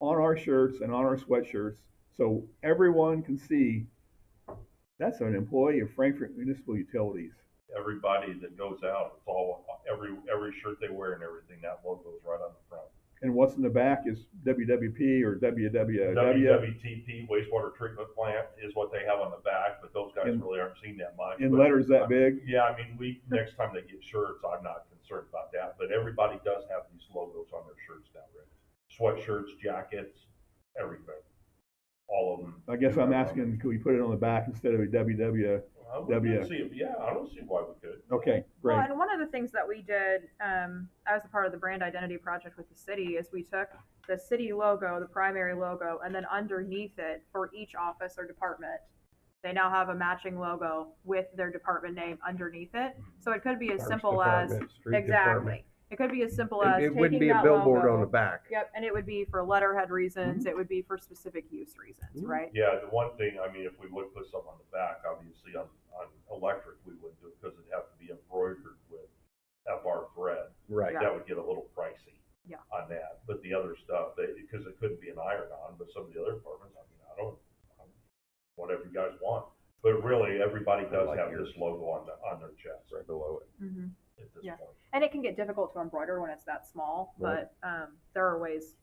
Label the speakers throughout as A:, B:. A: on our shirts and on our sweatshirts so everyone can see that's an employee of Frankfurt Municipal Utilities.
B: Everybody that goes out, it's all, every, every shirt they wear and everything, that logo's right on the front.
A: And what's in the back is WWP or WWW.
B: WWTP wastewater treatment plant is what they have on the back, but those guys
A: In-
B: really aren't seen that much.
A: in
B: But,
A: letters that big.
B: Yeah, I mean, we, next time they get shirts, I'm not concerned about that, but everybody does have these logos on their shirts now, Rick. Sweatshirts, jackets, everything, all of them.
A: I guess I'm asking, could we put it on the back instead of a WW?
B: I wouldn't
A: W.
B: see, yeah, I don't see why we could.
A: Okay,
C: Well,
A: great.
C: and one of the things that we did um, as a part of the brand identity project with the city is we took the city logo, the primary logo, and then underneath it for each office or department, they now have a matching logo with their department name underneath it.
B: Hmm.
C: So it could be as
D: Parks
C: simple
D: department, street
C: as
D: department.
C: exactly. It could be as simple as
D: It, it
C: taking
D: wouldn't be a
C: that
D: billboard
C: logo-
D: on the Mm-hmm. back.
C: Yep, and it would be for letterhead reasons. It would be for specific use reasons,
D: Mhm.
C: right?
B: Yeah, the one thing, I mean, if we would put some on the back, obviously on, on electric, we wouldn't do it because it'd have to be embroidered with FR thread.
D: Right.
B: That would get a little pricey.
C: Yeah.
B: On that, but the other stuff, they, because it couldn't be an iron-on, but some of the other departments, I mean, I don't, I'm- whatever you guys want. But really, everybody does
D: like
B: have
D: yours.
B: this logo on the, on their chest
D: Right below it.
C: Mm-hmm.
B: at this
C: Yeah.
B: point.
C: And it can get difficult to embroider when it's that small,
D: Right.
C: but um, there are ways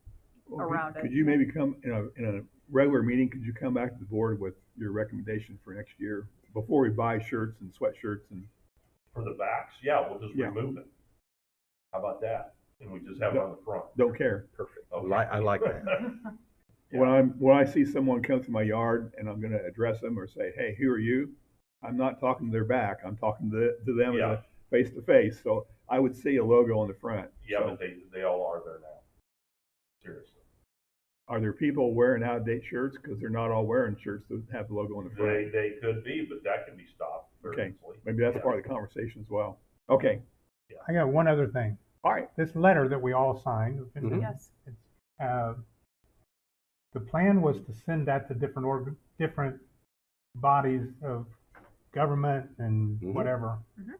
A: Well, could-
C: around it.
A: Could you maybe come, in a, in a regular meeting, could you come back to the board with your recommendation for next year? Before we buy shirts and sweatshirts and,
B: For the backs, yeah, we'll just
A: Yeah.
B: remove it. How about that? And we just have it on the front.
A: don't care.
D: Perfect.
B: Okay.
E: Oh,
D: Li- I like that.
A: When I'm, when I see someone come through my yard and I'm gonna address them or say, hey, who are you? I'm not talking to their back, I'm talking to, to them as
B: Yeah.
A: a face to face, so I would see a logo on the front.
B: Yeah,
A: So
B: but they, they all are there now. Seriously.
A: Are there people wearing outdated shirts? Cause they're not all wearing shirts that have the logo on the front.
B: They, they could be, but that can be stopped very
A: Okay.
B: easily.
A: Maybe that's
B: Yeah.
A: part of the conversation as well. Okay,
E: I got one other thing.
A: all right, Mm-hmm.
E: This letter that we all signed,
D: Mhm.
C: Yes.
E: uh, the plan was to send that to different org, different bodies of government and
D: Mhm.
E: whatever.
C: Mhm.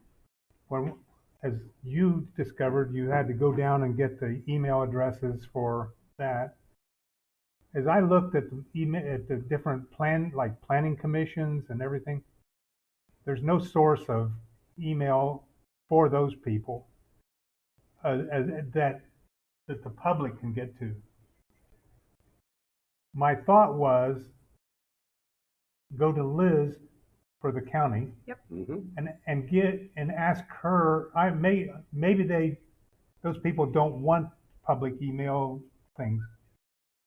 E: When, as you discovered, you had to go down and get the email addresses for that. As I looked at the email, at the different plan, like planning commissions and everything, there's no source of email for those people uh, as, that that the public can get to. My thought was go to Liz for the county
D: Mm-hmm.
E: and, and get and ask her. I may maybe they those people don't want public email things,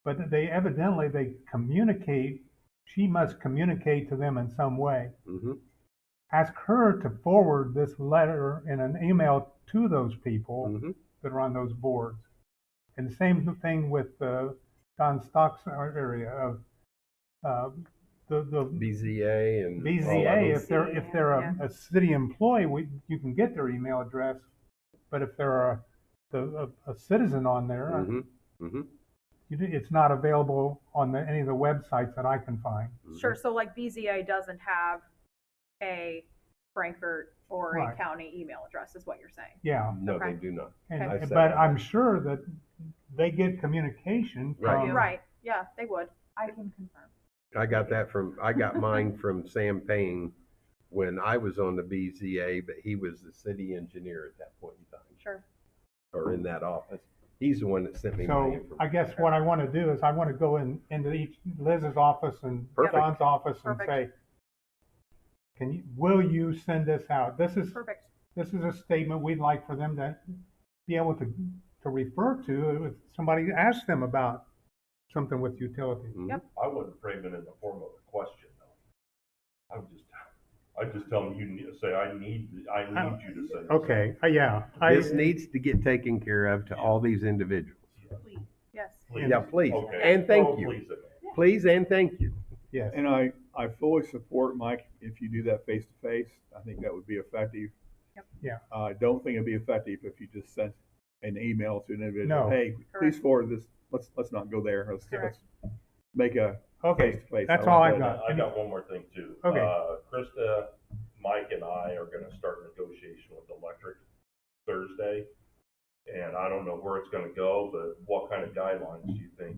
E: but they evidently they communicate. She must communicate to them in some way.
D: Mm-hmm.
E: Ask her to forward this letter in an email to those people
D: Mm-hmm.
E: that are on those boards. And the same thing with uh, Don Stock's area of uh, the, the
D: BZA and all that.
E: BZA. If they're if they're a, a city employee, we, you can get their email address. But if they're a the, a, a citizen on there, uh,
D: Mm-hmm. Mm-hmm.
E: you do- it's not available on the, any of the websites that I can find.
D: mm-hmm.
C: Sure. So like BZA doesn't have a Frankfurt or a
E: Right.
C: county email address, is what you're saying.
E: Yeah,
D: No,
C: Okay.
D: they do not.
E: and,
D: I said
E: but
D: that.
E: I'm sure that they get communication
D: Right.
E: from
C: Right. Yeah, they would. I can confirm.
D: I got that from I got mine from Sam Payne when I was on the BZA, but he was the city engineer at that point in time
C: Sure.
D: or in that office. He's the one that sent me. my
E: So
D: information.
E: I guess what I want to do is I want to go in, into each Liz's office and
D: Perfect.
E: Don's office and
C: Perfect.
E: say, can you, will you send this out? This is,
C: Perfect.
E: this is a statement we'd like for them to be able to, to refer to if somebody asks them about something with utility.
D: Mhm.
C: Yep.
B: I wouldn't frame it in the form of a question, though. I would just, I'd just tell them, you need, say, I need, I need you to send. this."
E: Okay, uh, yeah. I-
D: this needs to get taken care of to all these individuals.
C: Please. Yes.
B: Please.
D: Yeah, please.
B: Okay.
D: And thank
B: Oh,
D: you.
B: please, okay.
D: Please and thank you.
E: Yes,
A: And I, I fully support Mike, if you do that face to face, I think that would be effective.
C: Yep.
E: Yeah.
A: Uh, I don't think it'd be effective if you just sent an email to an individual,
E: No.
A: hey,
C: Correct.
A: please forward this, let's, let's not go there, let's, let's
C: Correct.
A: make a face
E: okay,
A: to face.
E: that's all I've got.
B: I got one more thing too.
E: Okay.
B: Uh, Krista, Mike and I are gonna start negotiation with Electric Thursday. And I don't know where it's gonna go, but what kind of guidelines do you think